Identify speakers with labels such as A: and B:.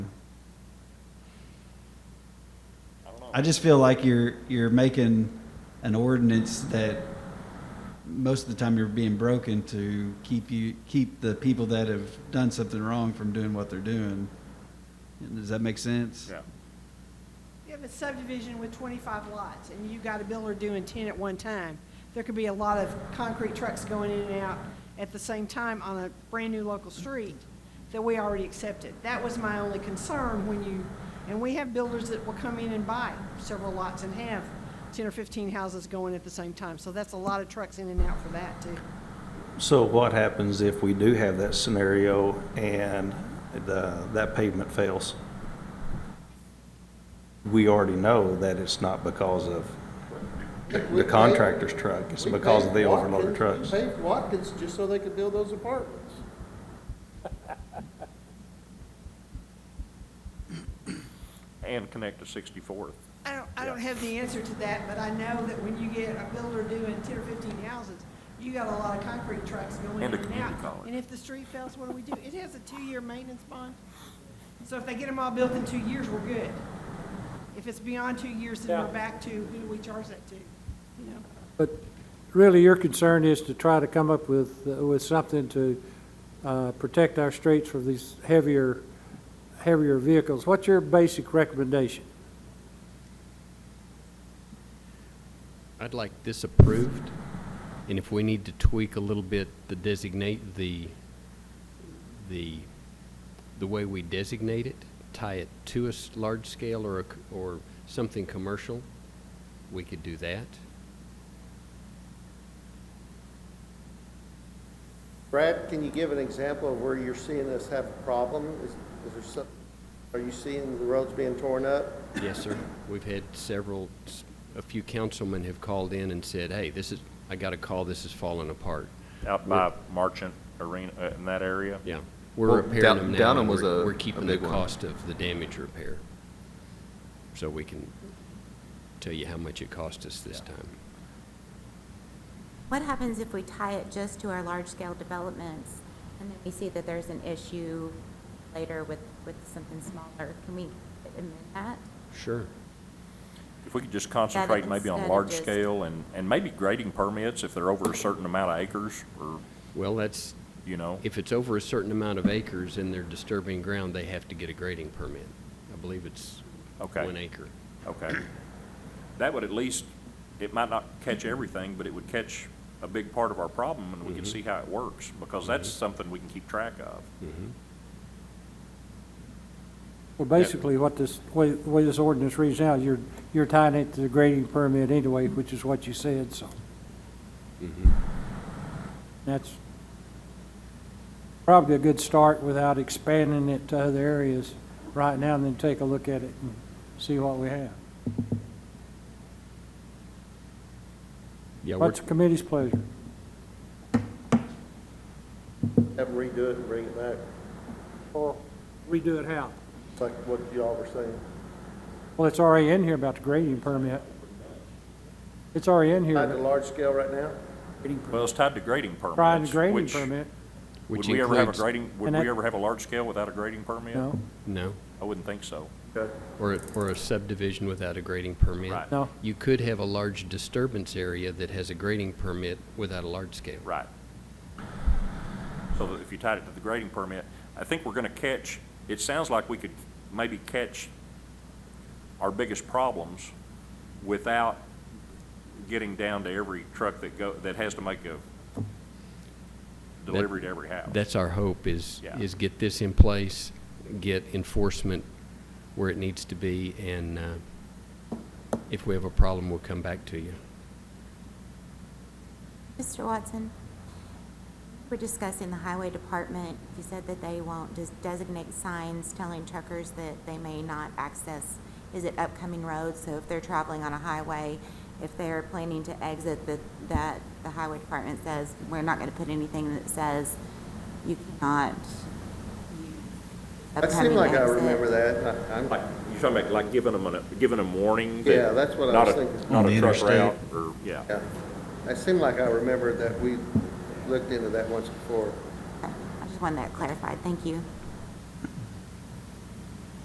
A: I just feel like you're you're making an ordinance that most of the time you're being broken to keep you keep the people that have done something wrong from doing what they're doing. Does that make sense?
B: Yeah.
C: You have a subdivision with 25 lots, and you got a builder doing 10 at one time. There could be a lot of concrete trucks going in and out at the same time on a brand-new local street that we already accepted. That was my only concern when you, and we have builders that will come in and buy several lots and have 10 or 15 houses going at the same time. So that's a lot of trucks in and out for that, too.
D: So what happens if we do have that scenario and the, that pavement fails? We already know that it's not because of the contractor's truck, it's
E: We
D: because of the
E: paved
D: overloaded
E: Watkins-
D: trucks.
E: we paved Watkins just so they could build those apartments.
B: And connect to 64th.
C: I don't, I don't
B: Yeah.
C: have the answer to that, but I know that when you get a builder doing ten or fifteen houses, you got a lot of concrete trucks going in
B: And a
C: and
B: community
C: out.
B: college.
C: And if the street fails, what do we do? It has a two-year maintenance bond. So if they get them all built in two years, we're good. If it's beyond two years, then we're
F: Yeah.
C: back to, who do we charge that to? You know,
F: But really, your concern is to try to come up with, uh, with something to uh, protect our streets from these heavier, heavier vehicles. What's your basic recommendation?
G: I'd like this approved, and if we need to tweak a little bit, the designate, the, the, the way we designate it, tie it to a s- large scale or, a c- or something commercial, we could do that.
E: Brad, can you give an example of where you're seeing us have a problem? Is, is there some, are you seeing the roads being torn up?
G: Yes, sir. We've had several, s- a few councilmen have called in and said, hey, this is, I got a call, this is falling apart.
B: Out by Marchant Arena, uh, in that area.
G: Yeah. We're
H: Well,
G: repairing
H: Down-
G: them now.
H: Downham
G: and
H: was
G: we're-
H: a-
G: We're
H: a
G: keeping the
H: big one.
G: cost of the damage repair. So we can tell you how much it cost us this time.
I: What happens if we tie it just to our large-scale developments, and then we see that there's an issue later with, with something smaller? Can we amend that?
G: Sure.
B: If we could just concentrate maybe on
I: instead of
B: large
I: just-
B: scale and, and maybe grading permits if they're over a certain amount of acres or,
G: Well, that's,
B: you know.
G: if it's over a certain amount of acres and they're disturbing ground, they have to get a grading permit. I believe it's
B: Okay.
G: one acre.
B: Okay. That would at least, it might not catch everything, but it would catch a big part of our problem and we
G: Mm-hmm.
B: can see how it works because that's something we can keep track of.
F: Well, basically, what this, way- the way this ordinance reads now, you're, you're tying it to the grading permit anyway, which is what you said, so. That's probably a good start without expanding it to other areas right now, and then take a look at it and see what we have.
G: Yeah, we're,
F: What's the committee's pleasure?
E: Have them redo it and bring it back,
F: Or redo it how?
E: It's like what y'all were saying.
F: Well, it's already in here about the grading permit. It's already in here,
E: Not the
F: about
E: large scale right now?
B: Well, it's tied to grading permits.
F: trying to grading
B: which-
F: permit,
B: Would
G: Mm-hmm. which
B: we ever have a
G: includes,
B: grading, would
F: And
B: we
F: that-
B: ever have a large scale without a grading permit?
F: no,
G: no,
B: I wouldn't think so.
E: Okay.
G: or, a- or a subdivision without a grading permit.
B: Right.
F: no.
G: You could have a large disturbance area that has a grading permit without a large scale.
B: Right. So that if you tied it to the grading permit, I think we're gonna catch, it sounds like we could maybe catch our biggest problems without getting down to every truck that go, that has to make a delivery to every house.
G: That's our hope is,
B: Yeah.
G: is get this in place, get enforcement where it needs to be, and uh, if we have a problem, we'll come back to you.
I: Mr. Watson, we're discussing the highway department. You said that they won't just designate signs telling truckers that they may not access, is it upcoming roads? So if they're traveling on a highway, if they're planning to exit, that, that the highway department says, we're not gonna put anything that says you cannot. use
E: That seemed
I: upcoming
E: like I
I: exit."
E: remember that. I- I'm-
B: Like, you're talking about like giving them a, giving them warning? that
E: Yeah, that's what I
B: not
E: was
B: a-
E: thinking.
B: Not
A: On
B: a
A: the
B: truck
A: interstate.
B: route, or, yeah.
E: yeah. I seemed like I remembered that we looked into that once before.
I: I just wanted that clarified, thank you.